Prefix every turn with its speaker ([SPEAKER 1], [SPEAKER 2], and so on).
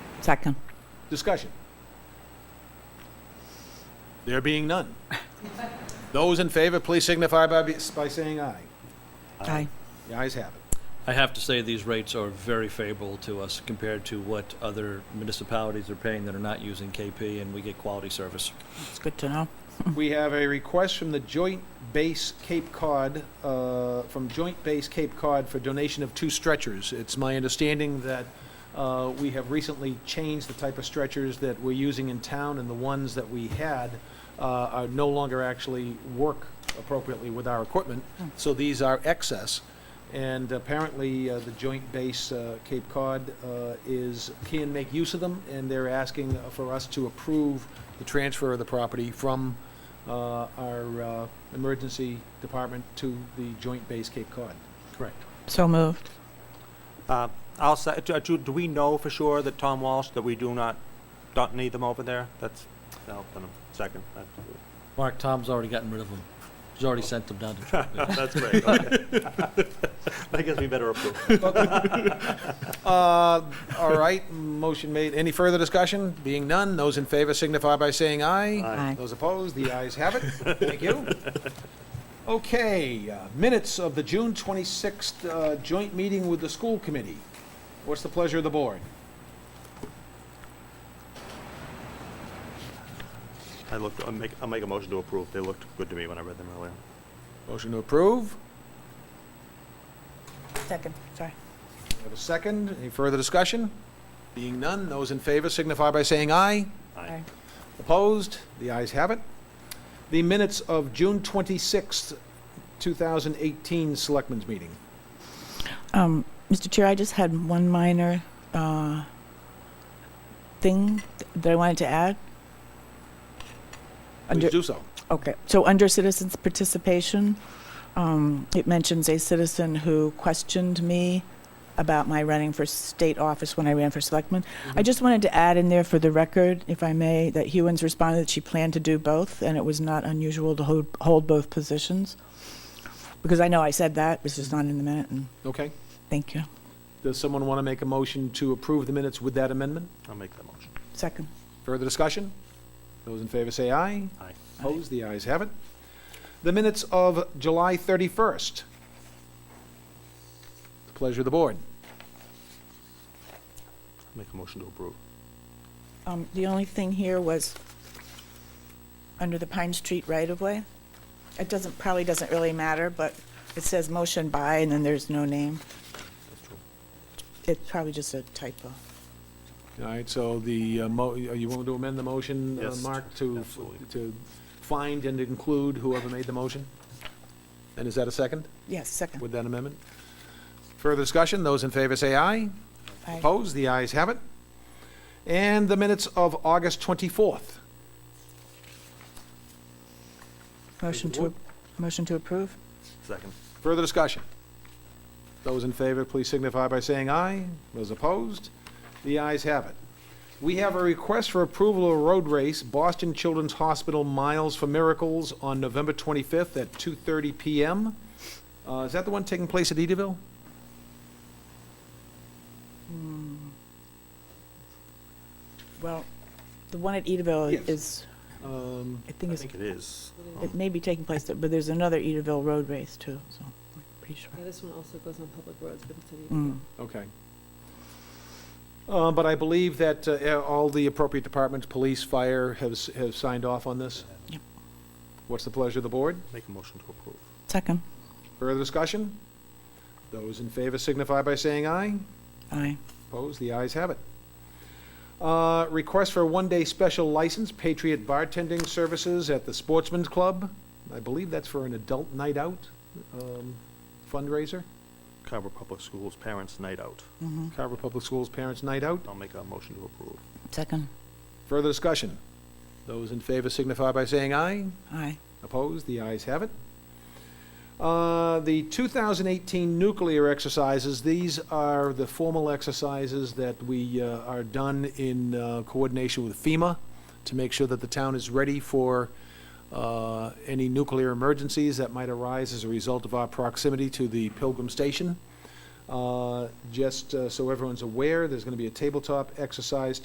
[SPEAKER 1] Second.
[SPEAKER 2] Discussion. There being none. Those in favor, please signify by, be- by saying aye.
[SPEAKER 1] Aye.
[SPEAKER 2] The ayes have it.
[SPEAKER 3] I have to say, these rates are very favorable to us compared to what other municipalities are paying that are not using KP, and we get quality service.
[SPEAKER 1] It's good to know.
[SPEAKER 2] We have a request from the Joint Base Cape Cod, uh, from Joint Base Cape Cod for donation of two stretchers. It's my understanding that uh, we have recently changed the type of stretchers that we're using in town, and the ones that we had uh, are no longer actually work appropriately with our equipment, so these are excess. And apparently, uh, the Joint Base uh, Cape Cod uh, is, can make use of them, and they're asking for us to approve the transfer of the property from uh, our uh, emergency department to the Joint Base Cape Cod. Correct.
[SPEAKER 1] So moved.
[SPEAKER 4] Uh, I'll say, do, do do we know for sure that Tom Walsh, that we do not, don't need them over there? That's, I'll, put 'em second. That's-
[SPEAKER 3] Mark, Tom's already gotten rid of them. He's already sent them down to Tropicana.
[SPEAKER 4] That's great, okay. I guess we better approve.
[SPEAKER 2] Uh, All right, motion made. Any further discussion? Being none, those in favor signify by saying aye.
[SPEAKER 1] Aye.
[SPEAKER 2] Those opposed, the ayes have it. Thank you. Okay, uh, minutes of the June 26th uh, joint meeting with the school committee. What's the pleasure of the board?
[SPEAKER 4] I looked, I'll make, I'll make a motion to approve. They looked good to me when I read them earlier.
[SPEAKER 2] Motion to approve.
[SPEAKER 1] Second. Sorry.
[SPEAKER 2] We have a second. Any further discussion? Being none, those in favor signify by saying aye.
[SPEAKER 1] Aye.
[SPEAKER 2] Opposed? The ayes have it. The minutes of June 26th, 2018 Selectmen's Meeting.
[SPEAKER 1] Um, Mr. Chair, I just had one minor uh, thing that I wanted to add. Under-
[SPEAKER 2] Please do so.
[SPEAKER 1] Okay, so under citizens' participation, um, it mentions a citizen who questioned me about my running for state office when I ran for selectman. I just wanted to add in there for the record, if I may, that Hewens responded that she planned to do both, and it was not unusual to hold, hold both positions. Because I know I said that, it's just not in the minute, and
[SPEAKER 2] Okay.
[SPEAKER 1] thank you.
[SPEAKER 2] Does someone want to make a motion to approve the minutes with that amendment?
[SPEAKER 4] I'll make that motion.
[SPEAKER 1] Second.
[SPEAKER 2] Further discussion? Those in favor say aye.
[SPEAKER 4] Aye.
[SPEAKER 2] Opposed? The ayes have it. The minutes of July 31st. Pleasure of the board.
[SPEAKER 4] Make a motion to approve.
[SPEAKER 1] Um, The only thing here was under the Pine Street right-of-way. It doesn't, probably doesn't really matter, but it says motion by, and then there's no name.
[SPEAKER 4] That's true.
[SPEAKER 1] It's probably just a typo.
[SPEAKER 2] All right, so the, uh, mo- you want to amend the motion, uh,
[SPEAKER 4] Yes,
[SPEAKER 2] Mark, to,
[SPEAKER 4] absolutely.
[SPEAKER 2] to find and include whoever made the motion? And is that a second
[SPEAKER 1] Yes, second.
[SPEAKER 2] with that amendment? Further discussion? Those in favor say aye.
[SPEAKER 1] Aye.
[SPEAKER 2] Opposed? The ayes have it. And the minutes of August 24th.
[SPEAKER 1] Motion to, motion to approve?
[SPEAKER 4] Second.
[SPEAKER 2] Further discussion? Those in favor, please signify by saying aye. Those opposed? The ayes have it. We have a request for approval of a road race, Boston Children's Hospital Miles for Miracles, on November 25th at 2:30 PM. Uh, Is that the one taking place at Ediville?
[SPEAKER 1] Well, the one at Edaville
[SPEAKER 2] Yes.
[SPEAKER 1] is,
[SPEAKER 2] Um,
[SPEAKER 1] I think
[SPEAKER 4] I
[SPEAKER 1] it's,
[SPEAKER 4] think it is.
[SPEAKER 1] it may be taking place, there, but there's another Edaville road race too, so I'm pretty sure.
[SPEAKER 5] Yeah, this one also goes on public roads, but it's a
[SPEAKER 1] Mm.
[SPEAKER 2] Okay. Uh, But I believe that uh, all the appropriate departments, police, fire, have s- have signed off on this?
[SPEAKER 1] Yep.
[SPEAKER 2] What's the pleasure of the board?
[SPEAKER 4] Make a motion to approve.
[SPEAKER 1] Second.
[SPEAKER 2] Further discussion? Those in favor signify by saying aye.
[SPEAKER 1] Aye.
[SPEAKER 2] Opposed, the ayes have it. Uh, Request for a one-day special license, Patriot Bartending Services at the Sportsman's Club. I believe that's for an adult night out um, fundraiser.
[SPEAKER 4] Carver Public Schools Parents Night Out.
[SPEAKER 1] Mm-hmm.
[SPEAKER 2] Carver Public Schools Parents Night Out.
[SPEAKER 4] I'll make a motion to approve.
[SPEAKER 1] Second.
[SPEAKER 2] Further discussion? Those in favor signify by saying aye.
[SPEAKER 1] Aye.
[SPEAKER 2] Opposed? The ayes have it. Uh, The 2018 nuclear exercises, these are the formal exercises that we uh, are done in uh, coordination with FEMA to make sure that the town is ready for uh, any nuclear emergencies that might arise as a result of our proximity to the Pilgrim Station. Uh, Just uh, so everyone's aware, there's going to be a tabletop exercise